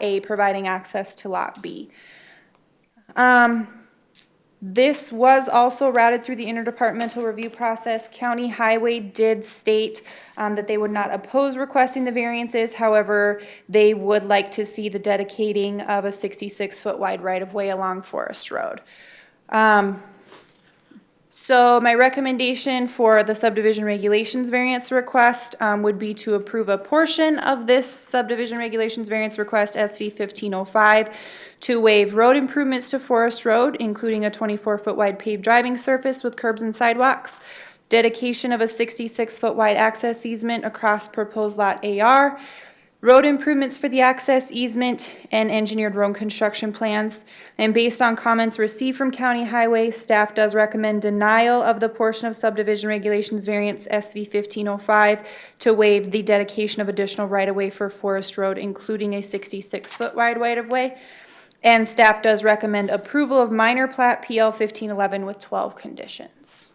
A, providing access to Lot B. Um, This was also routed through the interdepartmental review process. County Highway did state um, that they would not oppose requesting the variances. However, they would like to see the dedicating of a 66-foot wide right-of-way along Forest Road. Um, so my recommendation for the subdivision regulations variance request um, would be to approve a portion of this subdivision regulations variance request, SV 1505, to waive road improvements to Forest Road, including a 24-foot wide paved driving surface with curbs and sidewalks, dedication of a 66-foot wide access easement across proposed lot AR, road improvements for the access easement, and engineered road construction plans. And based on comments received from County Highway, staff does recommend denial of the portion of subdivision regulations variance SV 1505 to waive the dedication of additional right-of-way for Forest Road, including a 66-foot wide right-of-way. And staff does recommend approval of minor plat PL 1511 with 12 conditions.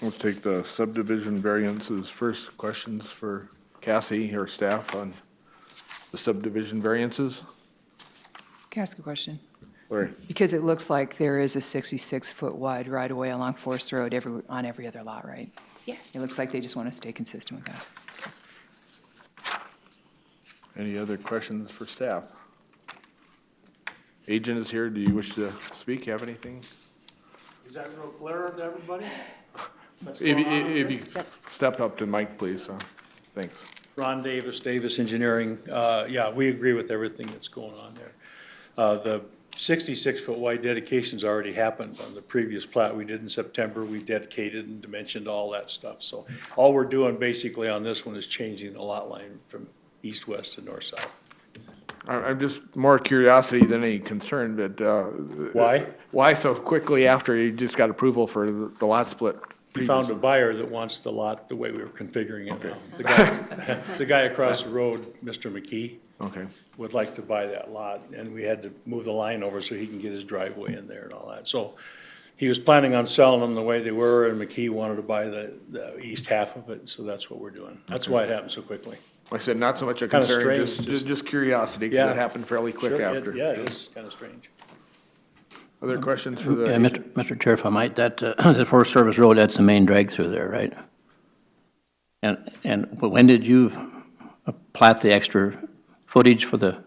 Let's take the subdivision variances first. Questions for Cassie or staff on the subdivision variances? Can I ask a question? Larry? Because it looks like there is a 66-foot wide right-of-way along Forest Road every, on every other lot, right? Yes. It looks like they just want to stay consistent with that. Any other questions for staff? Agent is here. Do you wish to speak? Have anything? Is that real clear to everybody? What's If, going on over if there? you step up to the mic, please. uh, Thanks. Ron Davis, Davis Engineering, uh, yeah, we agree with everything that's going on there. Uh, The 66-foot wide dedication's already happened on the previous plat we did in September. We dedicated and dimensioned all that stuff. So all we're doing basically on this one is changing the lot line from east-west to north-south. I- I'm just more curiosity than any concern, but. uh, Why? Why so quickly after you just got approval for the the lot split? We found a buyer that wants the lot the way we were configuring it now. The guy, the guy across the road, Mr. McKee, Okay. would like to buy that lot, and we had to move the line over so he can get his driveway in there and all that. So he was planning on selling them the way they were, and McKee wanted to buy the, the east half of it, so that's what we're doing. That's why it happened so quickly. Like I said, not so much a Kinda concern, strange, just, just- ju- just curiosity, because Yeah. it happened fairly quick Sure, it- after. Yeah, it is kind of strange. Other questions for Yeah, the, Mr. Mr. Chair, if I might, that, uh, the Forest Service Road, that's the main drag through there, right? And, and when did you plat the extra footage for the,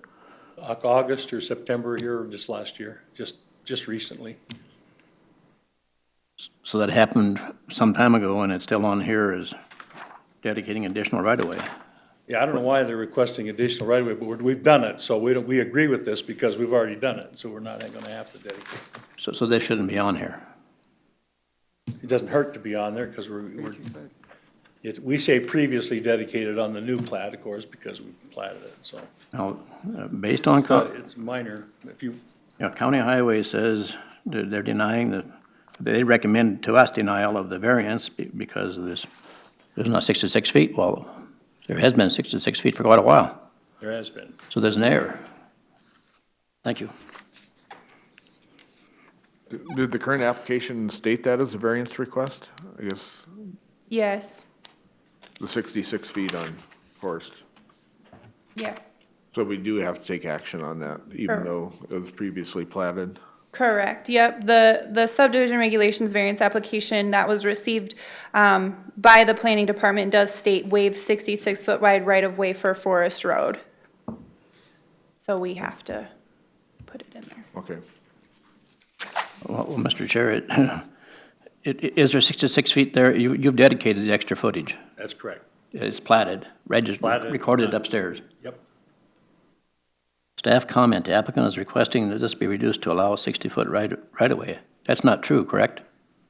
Au- August or September here, just last year, just, just recently. so that happened some time ago and it's still on here is dedicating additional right-of-way? Yeah, I don't know why they're requesting additional right of way, but we're- we've done it, so we don't, we agree with this because we've already done it, so we're not gonna have to dedicate. So, so this shouldn't be on here. It doesn't hurt to be on there because we're, we're, it, we say previously dedicated on the new plat, of course, because we platted it, so. Now, uh, based on, co- But it's minor, if you, you know, County Highway says they're they're denying the, they recommend to us denial of the variance be- because of this, there's not 66 feet. Well, there has been 66 feet for quite a while. there has been. So there's an error. Thank you. did the current application state that as a variance request? I guess Yes, the sixty-six feet on Forest. yes, So we do have to take action on that, even Sure. though it was previously platted. correct, yep. The, the subdivision regulations variance application that was received um, by the planning department does state waive 66-foot wide right-of-way for Forest Road. So we have to put it in there. Okay. Well, well, Mr. Chair, it- it- it- is there 66 feet there? You- You've dedicated the extra footage. That's correct. It's platted, registered, Platted, recorded done. upstairs. Yep. Staff comment, the applicant is requesting that this be reduced to allow a 60-foot right- right-of-way. That's not true, correct?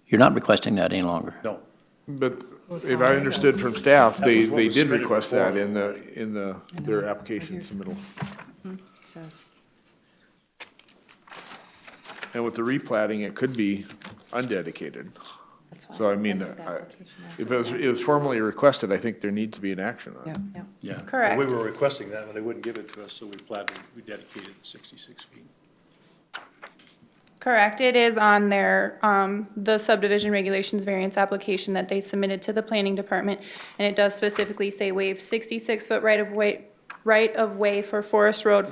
You're not requesting that any longer. No. But if I understood from staff, they, was what they was did submitted request that before. in the, in the, their application submittal. Says. And with the replatting, it could be undedicated. So I mean, I- if it was, it was formally requested, I think there needs to be an action on it. Yeah. Yeah. Correct. We were requesting that, but they wouldn't give it to us, so we platted, we dedicated the sixty-six feet. Correct, it is on their, um, the subdivision regulations variance application that they submitted to the planning department. And it does specifically say waive 66-foot right-of-way, right-of-way for Forest Road from